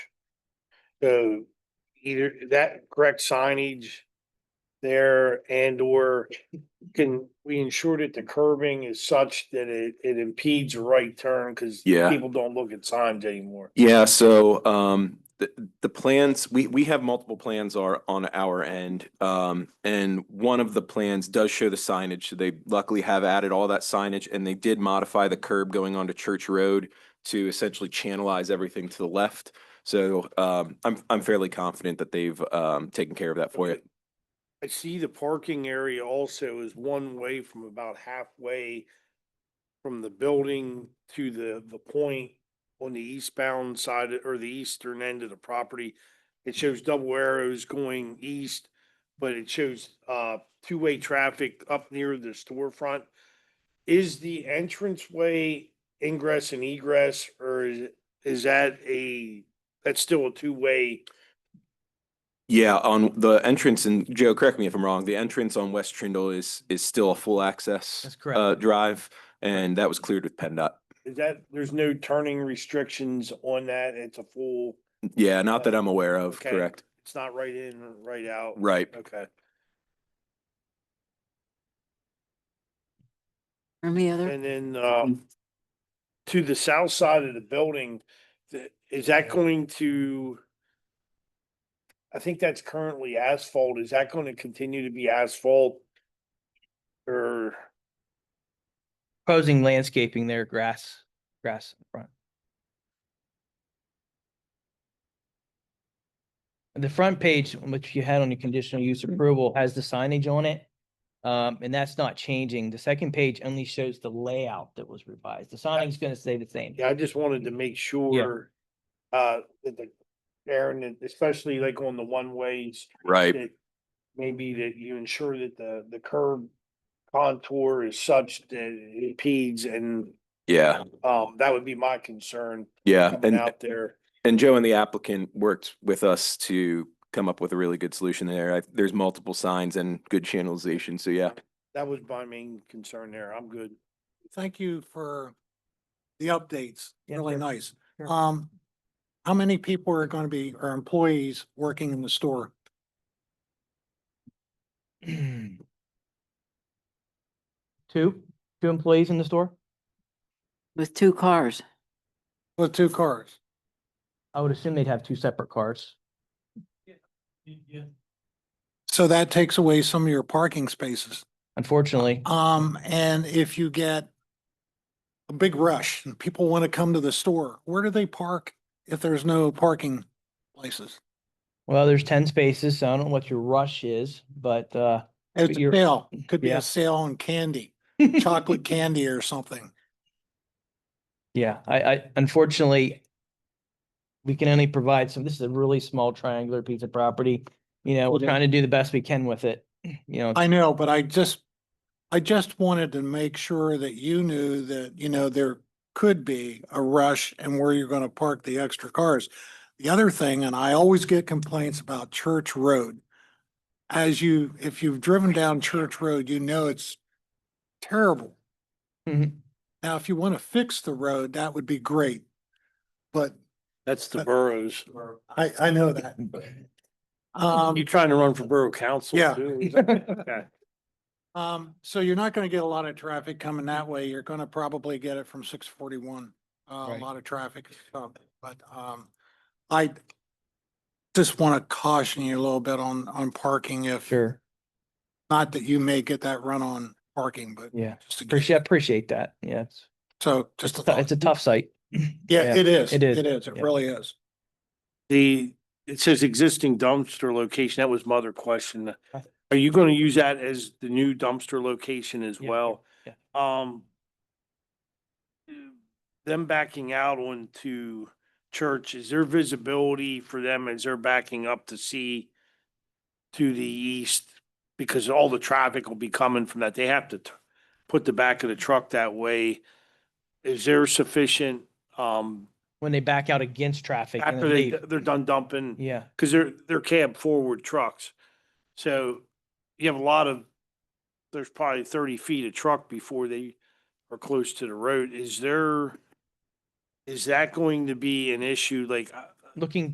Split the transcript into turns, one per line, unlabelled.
So either that correct signage there and or can we ensure that the curbing is such that it, it impedes a right turn? Cause
Yeah.
people don't look at signs anymore.
Yeah, so um the the plans, we we have multiple plans are on our end. Um and one of the plans does show the signage. They luckily have added all that signage and they did modify the curb going onto Church Road to essentially channelize everything to the left. So um I'm I'm fairly confident that they've um taken care of that for you.
I see the parking area also is one way from about halfway from the building to the, the point on the eastbound side or the eastern end of the property. It shows double arrows going east, but it shows, uh, two-way traffic up near the storefront. Is the entranceway ingress and egress, or is, is that a, that's still a two-way?
Yeah, on the entrance and Joe, correct me if I'm wrong, the entrance on West Trindle is is still a full access
That's
uh
correct.
drive and that was cleared with PennDOT.
Is that, there's no turning restrictions on that, it's a full,
Yeah, not that I'm aware of,
Okay.
correct?
it's not right in, or right out?
Right.
Okay,
Any other?
and then, um, to the south side of the building, th- is that going to? I think that's currently asphalt, is that going to continue to be asphalt? Or,
Proposing landscaping there, grass, grass in front. The front page, which you had on your conditional use approval, has the signage on it. Um, and that's not changing. The second page only shows the layout that was revised. The signing's gonna stay the same.
yeah, I just wanted to make sure. Uh, that the, Aaron, and especially like on the one ways,
Right.
that maybe that you ensure that the, the curb contour is such that it impedes and,
Yeah,
um, that would be my concern
yeah.
coming
And
out there.
and Joe and the applicant worked with us to come up with a really good solution there. I- There's multiple signs and good channelization. So yeah.
That was my main concern there. I'm good.
thank you for the updates.
Yeah,
Really
sure.
nice.
Sure.
Um, how many people are going to be, or employees working in the store?
Two, two employees in the store?
With two cars,
With two cars?
I would assume they'd have two separate cars.
So that takes away some of your parking spaces.
Unfortunately,
Um, and if you get a big rush and people want to come to the store, where do they park if there's no parking places?
well, there's ten spaces, so I don't know what your rush is, but, uh,
It's a
You're-
sale. Could be
Yeah.
a sale on candy, chocolate candy or something.
Yeah, I, I unfortunately, we can only provide some, this is a really small triangular piece of property. You know, we're
Okay.
trying to do the best we can with it, you know.
I know, but I just, I just wanted to make sure that you knew that, you know, there could be a rush and where you're gonna park the extra cars. The other thing, and I always get complaints about Church Road. As you, if you've driven down Church Road, you know it's terrible.
Mhm.
Now, if you want to fix the road, that would be great. But
That's the
Uh,
boroughs.
I, I know that. Um,
You trying to run for borough council?
Yeah.
too? Is that- okay.
Um, so you're not gonna get a lot of traffic coming that way. You're gonna probably get it from six forty-one. Uh, a
Right.
lot of traffic, uh, but, um, I just wanna caution you a little bit on, on parking if,
Sure,
not that you may get that run on parking, but
yeah,
just to get,
appreciate, appreciate that, yeah, it's,
so
it's
just. a
tou-
thought.
it's a tough site.
Yeah, it is.
it is,
It is. It
yeah.
really is.
The, it says existing dumpster location. That was my other question.
I-
Are you going to use that as the new dumpster location as
Yeah, yeah,
well?
yeah.
Um, them backing out onto church, is there visibility for them as they're backing up to see to the east? Because all the traffic will be coming from that. They have to t- put the back of the truck that way. Is there sufficient, um,
When they back out against traffic and
after
then
they,
leave,
they're done dumping?
yeah,
because they're, they're cab forward trucks. So you have a lot of, there's probably thirty feet of truck before they are close to the road. Is there, is that going to be an issue? Like, I-
looking